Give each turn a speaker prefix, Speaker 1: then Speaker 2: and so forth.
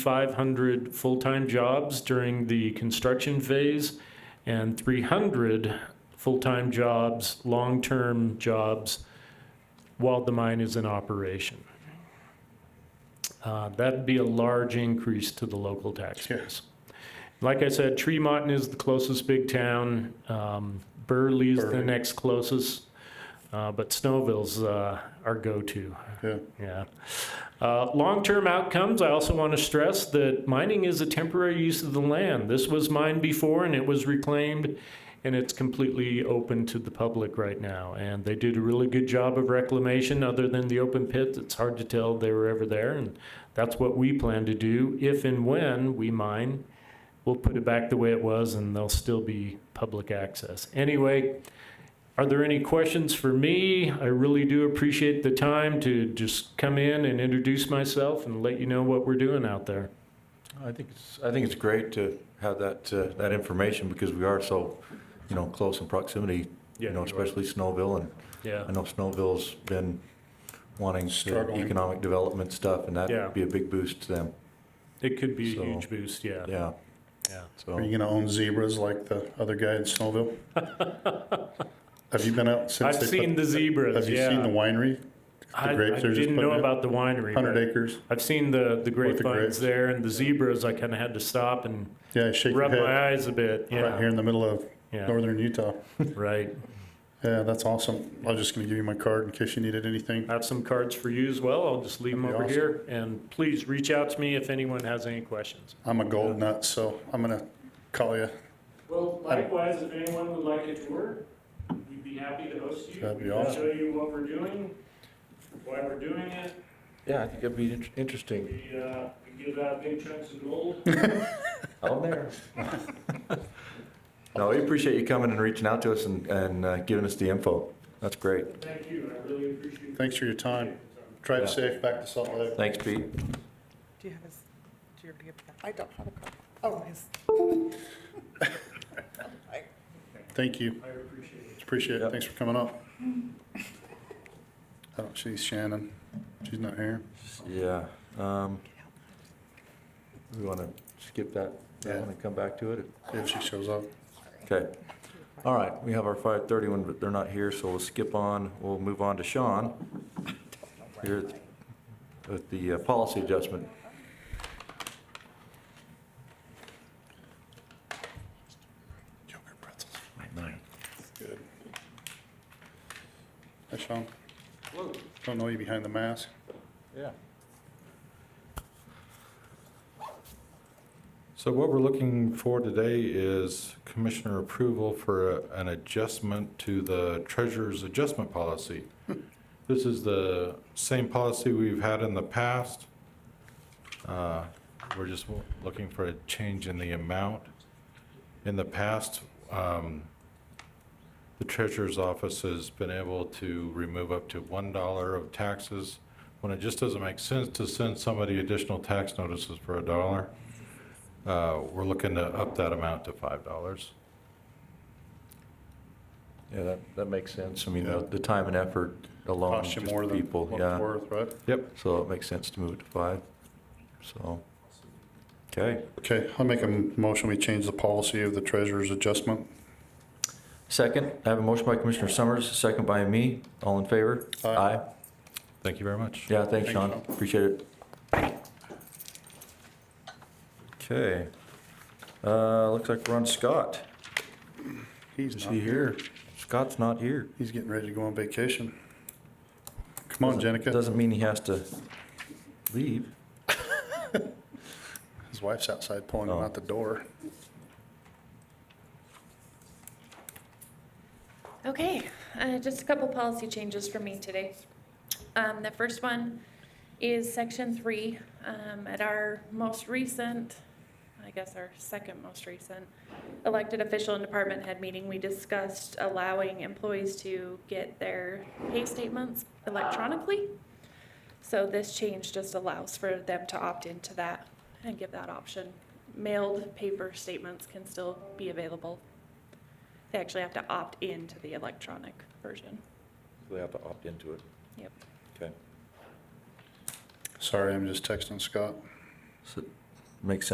Speaker 1: 500 full-time jobs during the construction phase and 300 full-time jobs, long-term jobs, while the mine is in operation. Uh, That'd be a large increase to the local tax
Speaker 2: Sure.
Speaker 1: base. Like I said, Tremonton is the closest big town. Um, Burley's the
Speaker 2: Burley.
Speaker 1: next closest, uh, but Snowville's uh, our go-to.
Speaker 2: Yeah.
Speaker 1: Yeah. Uh, long-term outcomes, I also want to stress that mining is a temporary use of the land. This was mined before and it was reclaimed and it's completely open to the public right now. And they did a really good job of reclamation other than the open pit. It's hard to tell they were ever there and that's what we plan to do. If and when we mine, we'll put it back the way it was and there'll still be public access. Anyway, are there any questions for me? I really do appreciate the time to just come in and introduce myself and let you know what we're doing out there.
Speaker 3: I think it's, I think it's great to have that, uh, that information because we are so, you know, close in proximity, you
Speaker 1: Yeah, you are.
Speaker 3: know, especially Snowville. And
Speaker 1: Yeah.
Speaker 3: I know Snowville's been wanting to
Speaker 2: Struggling.
Speaker 3: economic development stuff and
Speaker 1: Yeah.
Speaker 3: that'd be a big boost to them.
Speaker 1: It could be
Speaker 3: So-
Speaker 1: a huge boost. Yeah.
Speaker 3: Yeah.
Speaker 1: Yeah.
Speaker 3: So,
Speaker 2: Are you gonna own zebras like the other guy in Snowville? Have you been out since?
Speaker 1: I've
Speaker 2: they put-
Speaker 1: seen the zebras.
Speaker 2: Have you
Speaker 1: yeah.
Speaker 2: seen the winery?
Speaker 1: I,
Speaker 2: grapes
Speaker 1: I
Speaker 2: they're just
Speaker 1: didn't know
Speaker 2: putting in?
Speaker 1: about the winery.
Speaker 2: Hundred
Speaker 1: but
Speaker 2: acres?
Speaker 1: I've seen the, the
Speaker 2: grapes.
Speaker 1: grapevines there and the zebras. I kind of had to stop and
Speaker 2: Yeah, I shake your
Speaker 1: rub
Speaker 2: head.
Speaker 1: my eyes a bit. Yeah.
Speaker 2: Right here in the middle of
Speaker 1: Yeah.
Speaker 2: northern Utah.
Speaker 1: Right.
Speaker 2: Yeah, that's awesome. I was just gonna give you my card in case you needed anything.
Speaker 1: I have some cards for you as well. I'll just leave them
Speaker 2: That'd
Speaker 1: over
Speaker 2: be
Speaker 1: here. And please reach out to me if anyone has any questions.
Speaker 2: I'm a gold nut, so I'm gonna call you.
Speaker 1: Well, likewise, if anyone would like a tour, we'd be happy to host you.
Speaker 2: That'd be
Speaker 1: We can
Speaker 2: awesome.
Speaker 1: Show you what we're doing, why we're doing it.
Speaker 3: yeah, I think it'd be inter- interesting
Speaker 1: We, uh, we give out big chunks of gold.
Speaker 3: out there. No, we appreciate you coming and reaching out to us and, and uh, giving us the info. That's great.
Speaker 1: Thank you. I really appreciate it.
Speaker 2: Thanks for your time. Drive
Speaker 3: Yeah.
Speaker 2: safe back to Salt Lake.
Speaker 3: Thanks, Pete.
Speaker 4: Do you have his, do you have that? I don't have a copy. Oh, his.
Speaker 2: Thank you.
Speaker 1: I appreciate it.
Speaker 2: Appreciate it.
Speaker 3: Yep.
Speaker 2: Thanks for coming up. Oh, she's Shannon. She's not here.
Speaker 3: Yeah. um, We want to skip that, that one and come back to it?
Speaker 2: If she shows up.
Speaker 3: Okay. All right, we have our 531, but they're not here, so we'll skip on. We'll move on to Sean. Here at- with the uh, policy adjustment.
Speaker 2: Yogurt pretzels.
Speaker 3: Nine.
Speaker 2: Good. Hi, Sean. Don't know you behind the mask.
Speaker 5: Yeah. So what we're looking for today is commissioner approval for a- an adjustment to the treasurer's adjustment policy. This is the same policy we've had in the past. Uh, We're just w- looking for a change in the amount. In the past, um, the treasurer's office has been able to remove up to one dollar of taxes when it just doesn't make sense to send somebody additional tax notices for a dollar. Uh, we're looking to up that amount to five dollars.
Speaker 3: Yeah, that, that makes sense. I mean, the the time and effort alone,
Speaker 2: Cost
Speaker 3: just
Speaker 2: you more than
Speaker 3: people,
Speaker 2: what it's
Speaker 3: yeah.
Speaker 2: worth, right?
Speaker 5: Yep.
Speaker 3: So it makes sense to move it to five, so. Okay.
Speaker 2: Okay, I'll make a motion. We change the policy of the treasurer's adjustment.
Speaker 3: Second, I have a motion by Commissioner Summers, second by me. All in favor?
Speaker 2: Aye.
Speaker 5: Thank you very much.
Speaker 3: Yeah,
Speaker 2: Thanks,
Speaker 3: thanks, Sean.
Speaker 2: Sean.
Speaker 3: Appreciate it. Okay. Uh, looks like we're on Scott.
Speaker 2: He's
Speaker 3: Is
Speaker 2: not
Speaker 3: he here? Scott's not here.
Speaker 2: He's getting ready to go on vacation. Come on, Jenica.
Speaker 3: Doesn't mean he has to leave.
Speaker 2: His wife's outside pulling him
Speaker 3: Oh.
Speaker 2: out the door.
Speaker 6: Okay, uh, just a couple policy changes for me today. Um, The first one is section three. Um, At our most recent, I guess our second most recent, elected official and department head meeting, we discussed allowing employees to get their pay statements electronically. So this change just allows for them to opt into that and give that option. Mailed paper statements can still be available they actually have to opt into the electronic version.
Speaker 3: They have to opt into it.
Speaker 6: Yep.
Speaker 3: Okay.
Speaker 2: Sorry, I'm just texting Scott.
Speaker 3: So, makes sense